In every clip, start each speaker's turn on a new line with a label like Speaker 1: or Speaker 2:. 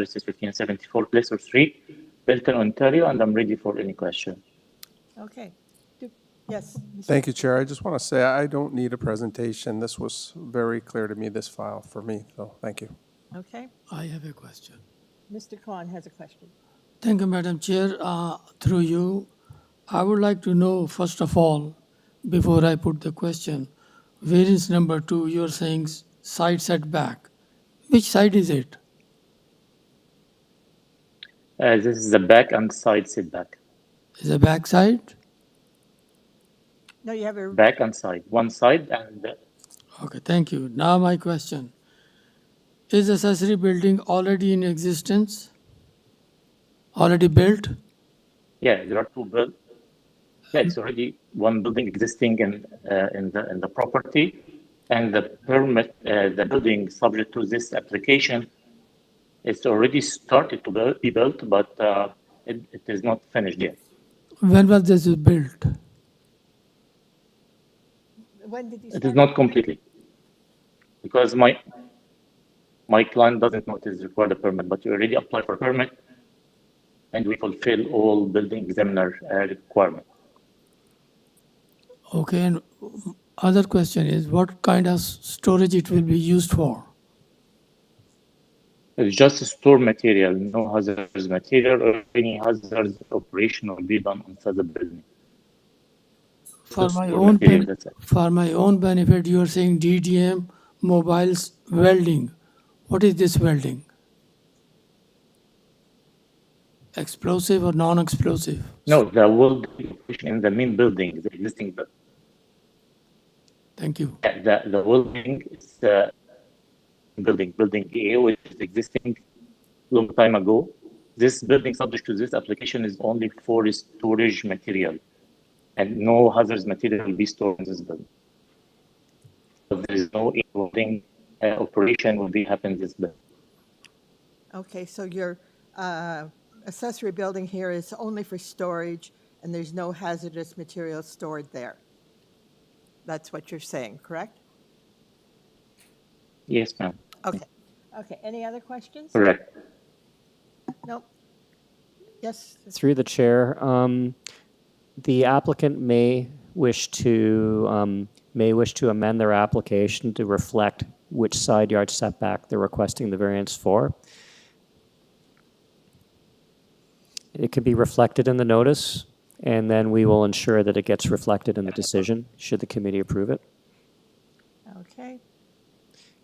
Speaker 1: address is 1574 Placer Street, Belton, Ontario, and I'm ready for any question.
Speaker 2: Okay. Do- Yes,
Speaker 3: Thank you, Chair. I just want to say I don't need a presentation. This was very clear to me, this file, for me, so thank you.
Speaker 2: okay.
Speaker 4: I have a question.
Speaker 2: Mr. Khan has a question.
Speaker 4: Thank you, Madam Chair. Uh, Through you, I would like to know, first of all, before I put the question, variance number two, you're saying s- side setback. Which side is it?
Speaker 1: Uh, This is the back and side setback.
Speaker 4: Is it back side?
Speaker 2: No, you have a,
Speaker 1: Back and side, one side and uh,
Speaker 4: Okay, thank you. Now my question. Is accessory building already in existence? Already built?
Speaker 1: yeah, there are two build. Yeah, it's already one building existing in uh, in the in the property, and the permit, uh, the building subject to this application, it's already started to buil- be built, but uh, it, it is not finished yet.
Speaker 4: When was this built?
Speaker 2: when did you
Speaker 1: It is
Speaker 2: start?
Speaker 1: not completely. Because my, my client doesn't know it is required a permit, but you already applied for permit and we fulfill all building examiner uh, requirement.
Speaker 4: Okay, and other question is, what kind of s- storage it will be used for?
Speaker 1: It's just store material, no hazardous material or any hazardous operation will be done inside the building.
Speaker 4: For
Speaker 1: Just
Speaker 4: my
Speaker 1: for
Speaker 4: own,
Speaker 1: material,
Speaker 4: ben-
Speaker 1: that's it.
Speaker 4: for my own benefit, you are saying DDM mobiles welding. What is this welding? Explosive or non-explosive?
Speaker 1: No, there will be operation in the main building, the existing, bu-
Speaker 4: Thank you.
Speaker 1: yeah, the, the building is the building, building A, which is existing long time ago. This building subject to this application is only for storage material and no hazardous material will be stored in this building. But there is no building uh, operation will be happen in this building.
Speaker 2: Okay, so your uh, accessory building here is only for storage, and there's no hazardous material stored there. That's what you're saying, correct?
Speaker 1: Yes, ma'am.
Speaker 2: Okay, okay. Any other questions?
Speaker 1: Correct.
Speaker 2: Nope. Yes,
Speaker 5: Through the chair, um, the applicant may wish to, um, may wish to amend their application to reflect which side yard setback they're requesting the variance for. It could be reflected in the notice, and then we will ensure that it gets reflected in the decision, should the committee approve it.
Speaker 2: okay.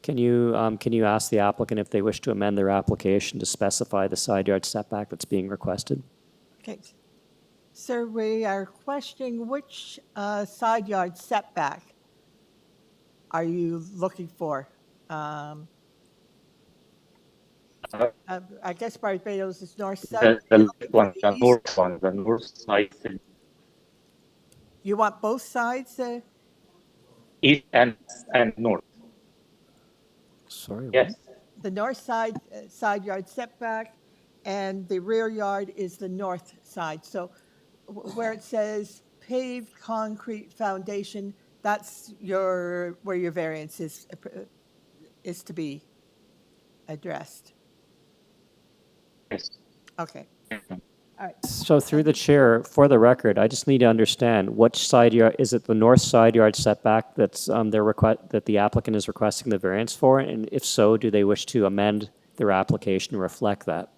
Speaker 5: Can you, um, can you ask the applicant if they wish to amend their application to specify the side yard setback that's being requested?
Speaker 2: Okay. Sir, we are questioning which uh, side yard setback are you looking for? Um,
Speaker 1: Uh,
Speaker 2: uh, I guess Barbados is north
Speaker 1: The,
Speaker 2: side.
Speaker 1: the left one, the north one, the north side, the
Speaker 2: You want both sides? uh,
Speaker 1: east and, and north.
Speaker 5: Sorry. what?
Speaker 1: Yes.
Speaker 2: The north side, uh, side yard setback, and the rear yard is the north side. So wh- where it says paved concrete foundation, that's your, where your variance is, uh, pr- is to be addressed.
Speaker 1: Yes.
Speaker 2: Okay, all right.
Speaker 5: So through the chair, for the record, I just need to understand, which side yard, is it the north side yard setback that's, um, their request, that the applicant is requesting the variance for? And if so, do they wish to amend their application to reflect that?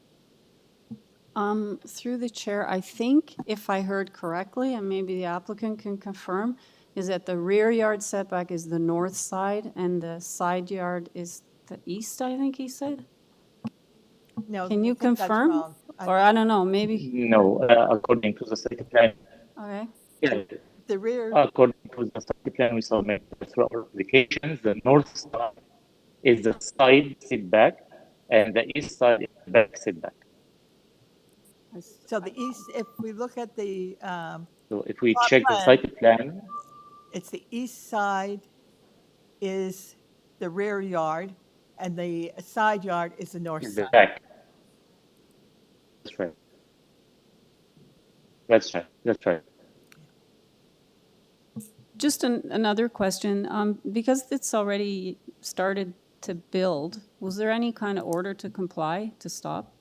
Speaker 6: Um, Through the chair, I think if I heard correctly, and maybe the applicant can confirm, is that the rear yard setback is the north side and the side yard is the east, I think he said?
Speaker 2: No,
Speaker 6: Can
Speaker 2: I
Speaker 6: you
Speaker 2: think that's
Speaker 6: confirm?
Speaker 2: wrong. I-
Speaker 6: Or I don't know, maybe,
Speaker 1: No, uh, according to the site plan,
Speaker 6: okay.
Speaker 1: yeah,
Speaker 2: The rear,
Speaker 1: According to the site plan we submit through our applications, the north side is the side setback and the east side is the back setback.
Speaker 6: I s-
Speaker 2: so the east, if we look at the, um,
Speaker 1: So if we
Speaker 2: Plot
Speaker 1: check the
Speaker 2: plan.
Speaker 1: site plan,
Speaker 2: it's the east side is the rear yard, and the side yard is the north
Speaker 1: it's the
Speaker 2: side.
Speaker 1: back. That's right. That's right, that's right.
Speaker 6: Just an- another question, um, because it's already started to build, Was there any kind of order to comply, to stop?